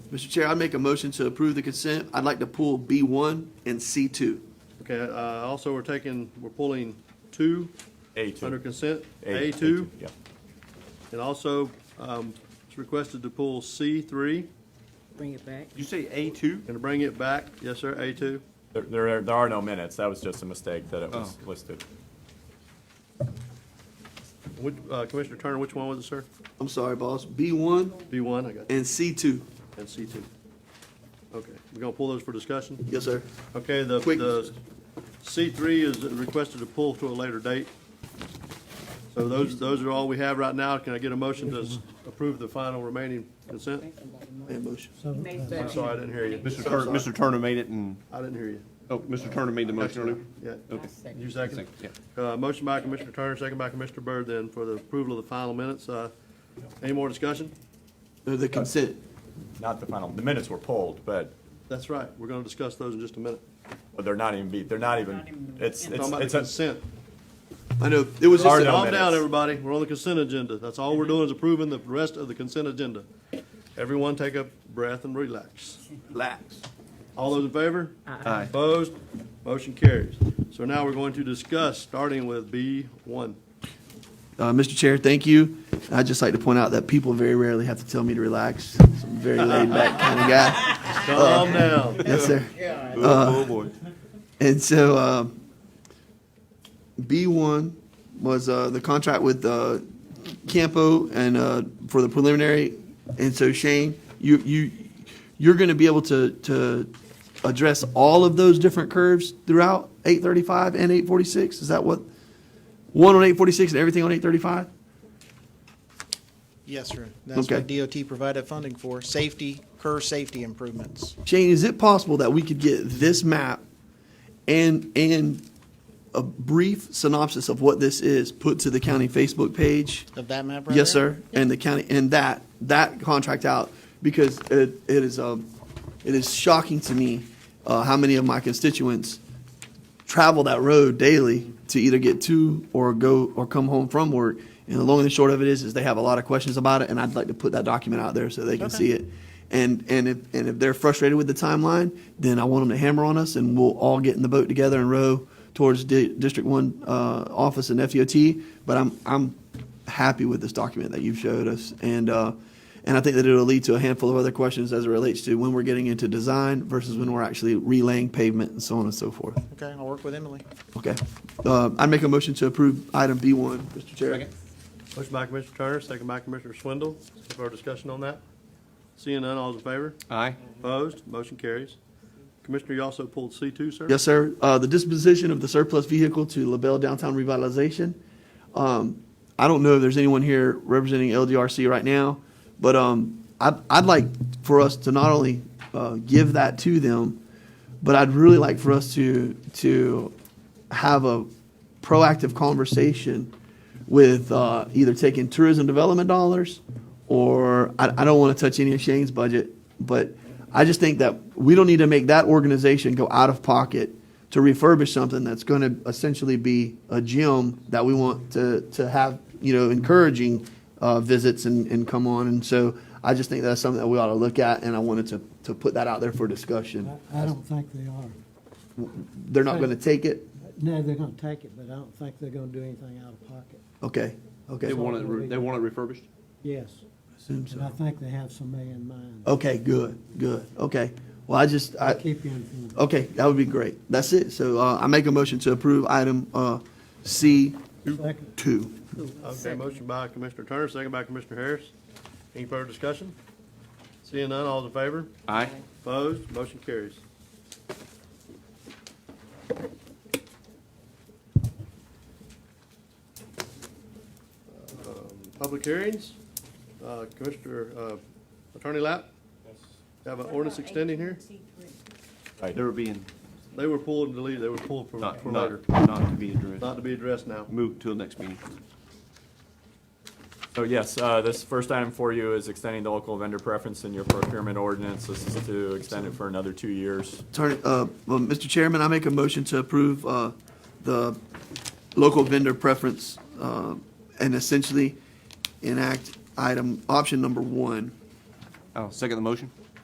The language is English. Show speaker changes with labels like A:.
A: Mr. Chair, I make a motion to approve the consent. I'd like to pull B1 and C2.
B: Okay, uh, also, we're taking, we're pulling two
C: A2.
B: under consent,
C: A-
B: A2,
C: Yeah.
B: and also, um, it's requested to pull C3
D: Bring it back.
C: You say A2?
B: and to bring it back. Yes, sir, A2.
C: There, there are- there are no minutes. That was just a mistake that it
B: Oh.
C: was listed.
B: Which, uh, Commissioner Turner, which one was it, sir?
A: I'm sorry, boss. B1
B: B1, I got you,
A: and C2.
B: and C2. Okay, we're gonna pull those for discussion?
A: Yes, sir.
B: Okay, the,
A: Quick.
B: the C3 is requested to pull to a later date. So those, those are all we have right now. Can I get a motion to s- approve the final remaining consent?
A: I have a motion. Uh,
B: I'm sorry, I didn't hear you.
E: Mr. Turner, Mr. Turner made it and,
B: I didn't hear you.
E: oh, Mr. Turner made the motion earlier?
B: Yeah.
E: Okay.
B: You second?
E: Second,
B: Uh, motion by Commissioner Turner, second by Commissioner Byrd then for the approval of the final minutes. Uh, any more discussion?
A: Uh, The consent.
C: Not the final, the minutes were pulled, but
B: That's right. We're gonna discuss those in just a minute.
C: but they're not even beat, they're not even, it's,
B: Talking about the
C: it's, it's, a-
B: consent.
A: I know, it was
C: Are
A: just,
C: no
B: Calm down,
C: minutes. Mm-hmm.
B: everybody. We're on the consent agenda. That's all we're doing is approving the rest of the consent agenda. Everyone take a breath and relax.
A: relax.
B: All those in favor?
E: Aye.
B: Opposed? Motion carries. So now we're going to discuss, starting with B one.
A: Uh, Mr. Chair, thank you. I'd just like to point out that people very rarely have to tell me to relax. I'm a very laid back kind of guy.
B: Calm down.
A: Yes, sir.
E: Oh, boy.
A: Uh, And so um, B1 was uh, the contract with uh, Campo and uh, for the preliminary. And so Shane, you you you're going to be able to to address all of those different curves throughout 835 and 846. Is that what one on 846 and everything on 835?
F: Yes, sir. That's
A: Okay.
F: what DOT provided funding for, safety, curb safety improvements.
A: Shane, is it possible that we could get this map and and a brief synopsis of what this is put to the county Facebook page?
F: Of that map right
A: Yes,
F: there?
A: sir. And the county, and that, that contract out, because it, it is, um, it is shocking to me, uh, how many of my constituents travel that road daily to either get to or go, or come home from work. And the long and the short of it is, is they have a lot of questions about it, and I'd like to put that document out there so they can see it. And, and if, and if they're frustrated with the timeline, then I want them to hammer on us, and we'll all get in the boat together and row towards Di- District One, uh, office and FDOT. But I'm, I'm happy with this document that you've showed us, and uh, and I think that it'll lead to a handful of other questions as it relates to when we're getting into design versus when we're actually relaying pavement and so on and so forth.
F: Okay, I'll work with Emily.
A: Okay, uh, I'd make a motion to approve item B one, Mr. Chair.
B: Motion by Commissioner Turner, second by Commissioner Swindle. Any further discussion on that? Seeing none, all's in favor?
E: Aye.
B: Opposed? Motion carries. Commissioner, you also pulled C two, sir?
A: Yes, sir. Uh, the disposition of the surplus vehicle to LaBelle Downtown Revitalization. Um, I don't know if there's anyone here representing LDRC right now, but, um, I'd, I'd like for us to not only, uh, give that to them, but I'd really like for us to, to have a proactive conversation with, uh, either taking tourism development dollars or I, I don't want to touch any of Shane's budget, but I just think that we don't need to make that organization go out of pocket to refurbish something that's going to essentially be a gym that we want to, to have, you know, encouraging uh, visits and, and come on. And so I just think that's something that we ought to look at, and I wanted to, to put that out there for discussion.
G: I don't think they are.
A: They're not going to take it?
G: No, they're gonna take it, but I don't think they're gonna do anything out of pocket.
A: Okay, okay.
E: They want it, re- they want it refurbished?
G: Yes,
A: Assume
G: and I
A: so.
G: think they have some may in mind.
A: Okay, good, good. Okay. Well, I just,
E: Oh,
A: I,
G: Keep you informed.
A: Okay, that would be great. That's it. So uh, I make a motion to approve item uh, C2.
G: Second.
B: Okay, motion by Commissioner Turner, second by Commissioner Harris. Any further discussion? Seeing none, all's in favor?
E: Aye.
B: Opposed? Motion carries. Um, Public hearings, Uh, Commissioner, uh, Attorney Lapp? You Have an ordinance extending here?
E: They were being,
B: They were pulled and deleted, they were pulled for
E: not,
B: for
E: not,
B: later,
E: not to be addressed.
B: not to be addressed now.
E: Move till next meeting.
C: so yes, uh, this first item for you is extending the local vendor preference in your procurement ordinance. This is to extend it for another two years.
A: Attorney, uh, well, Mr. Chairman, I make a motion to approve uh, the local vendor preference uh, and essentially enact item, option number one.
E: I'll second the motion.